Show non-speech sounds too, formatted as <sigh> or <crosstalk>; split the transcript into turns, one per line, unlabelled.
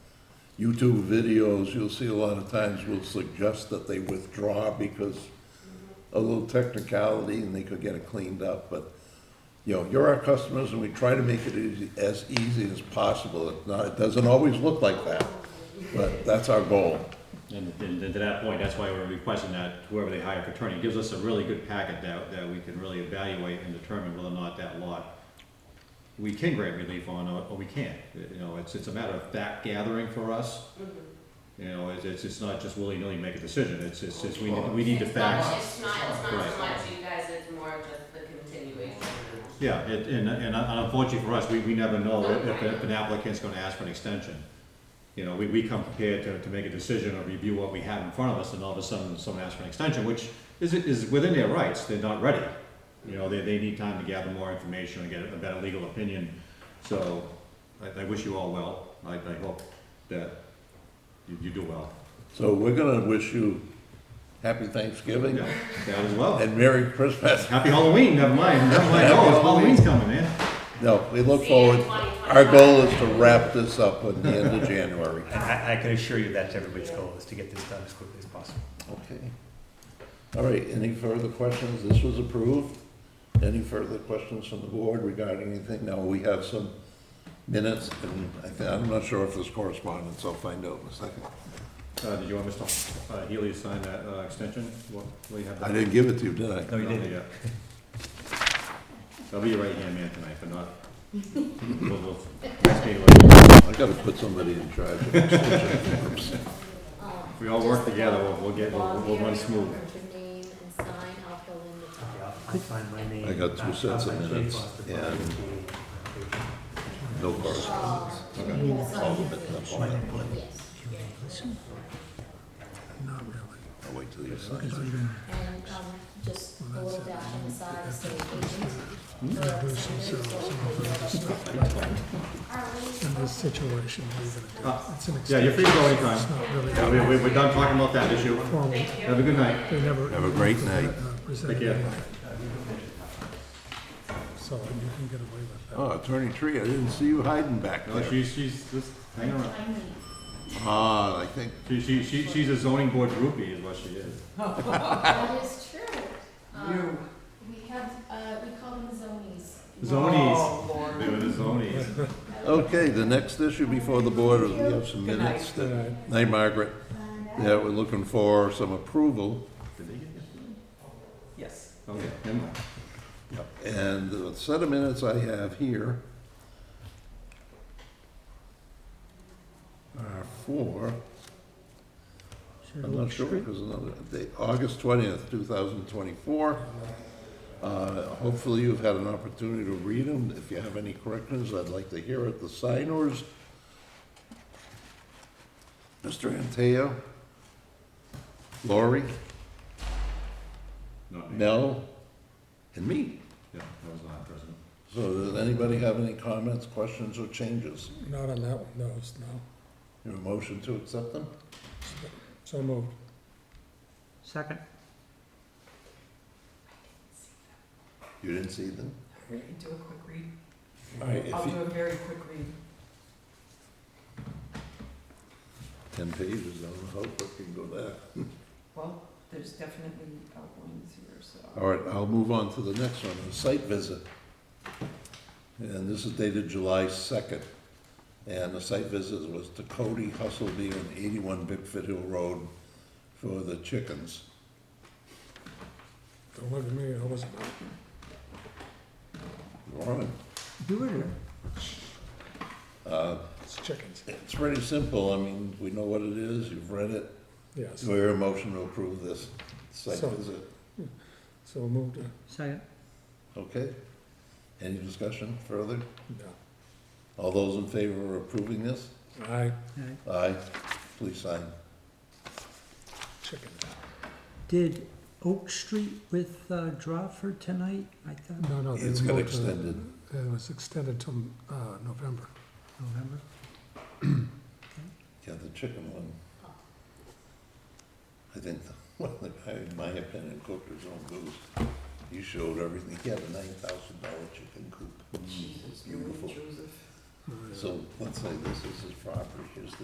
YouTube videos, you'll see a lot of times will suggest that they withdraw because a little technicality and they could get it cleaned up, but, you know, you're our customers and we try to make it easy- as easy as possible. It's not, it doesn't always look like that, but that's our goal.
And, and and to that point, that's why we're requesting that whoever they hire for attorney gives us a really good packet that, that we can really evaluate and determine whether or not that lot we can grant relief on or, or we can't. You know, it's, it's a matter of fact gathering for us. You know, it's, it's, it's not just willy-nilly make a decision, it's, it's, it's, we, we need the
It's not-
facts.
It's not, it's not
Right.
so much you guys, it's more just the continuation.
Yeah, it- and, and unfortunately for us, we, we never know if, if an applicant's gonna ask for an extension. You know, we, we come prepared to, to make a decision or review what we have in front of us, and all of a sudden, someone asks for an extension, which is, is within their rights, they're not ready. You know, they, they need time to gather more information and get a better legal opinion, so I, I wish you all well, I, I hope that you, you do well.
So we're gonna wish you happy Thanksgiving
Yeah, that as well.
and Merry Christmas.
Happy Halloween, never mind, never mind,
Happy
oh,
Halloween.
Halloween's coming, man.
No, we look
See you
forward,
in 2025.
our goal is to wrap this up at the end of January.
I, I can assure you that's everybody's goal, is to get this done as quickly as possible.
Okay. All right, any further questions? This was approved. Any further questions from the board regarding anything? Now, we have some minutes, and I thi- I'm not sure if there's correspondence, I'll find out in a second.
Uh, did you want Mr. uh, Healy to sign that, uh, extension? What, what do you have?
I
there?
didn't give it to you, did I?
No, you didn't.
Yeah. I'll be your right hand man tonight, but
<laughs>
not. we'll- we'll- next meeting we'll-
I gotta put somebody in charge of this.
Um,
If we all work together, we'll, we'll get, we'll, we'll run smooth.
name and sign, I'll fill in the top.
Yeah, I'll find my name.
I got two
I'll
sets of
find
minutes,
Jay's last
and-
appointment.
No correspondence. Okay. All of it, that's all. I'll wait till you sign it.
And, um, just a little dash on the side, to say
Hmm.
agent. Yeah, there's
in this situation, leaving it.
Uh,
It's an
Yeah, you're free to go anytime.
It's not really
Yeah, we, we- we're done talking about that issue.
formal.
Have a good night.
They never.
Have a great night.
uh, presented
Take care.
anything. So you can get away with that.
Oh, Attorney Tree, I didn't see you hiding back
No,
there.
she's, she's, just hang around.
Ah, I think
She, she, she, she's a zoning board groupie is what she is.
That is true. You. We have, uh, we call them zonies.
Zonies. They were the zonies.
Okay, the next issue before the board is we have some minutes that, hey Margaret, yeah, we're looking for some approval.
Did they get this?
Yes.
Okay, never mind.
And the set of minutes I have here are for, I'm not sure, because another, the, August twentieth, two thousand twenty-four. Uh, hopefully you've had an opportunity to read them. If you have any corrections, I'd like to hear it. The signers, Mr. Anteo, Lori,
Not me.
Mel, and me.
Yeah, that was not present.
So does anybody have any comments, questions, or changes?
Not on that one, no, it's no.
Your motion to accept them?
So moved.
Second?
You didn't see them?
Do a quick read.
All right, if
I'll
you,
do a very quick read.
ten pages, I don't know how quick you can go there.
Well, there's definitely outlines here, so.
All right, I'll move on to the next one, the site visit. And this is dated July second. And the site visit was to Cody Hustleby on eighty-one Bigfoot Hill Road for the chickens.
Don't look at me, I wasn't.
Lauren,
Do it or?
It's chickens.
uh, it's pretty simple, I mean, we know what it is, you've read it.
Yes,
So your motion to approve this site
So-
visit,
so moved. uh,
Second.
okay? Any discussion further?
No.
All those in favor of approving this?
Aye,
Aye, please sign.
chicken.
Did Oak Street with uh, Drawford tonight? I thought
No, no. they
It's got
moved Oh, to-
extended.
It was extended till, uh, November.
November.
Yeah, the chicken one. I think, the- <laughs> well, the guy, in my opinion, cooked his own goose. He showed everything. He had a nine thousand dollar chicken coop. Beautiful. So let's say this is his property, here's the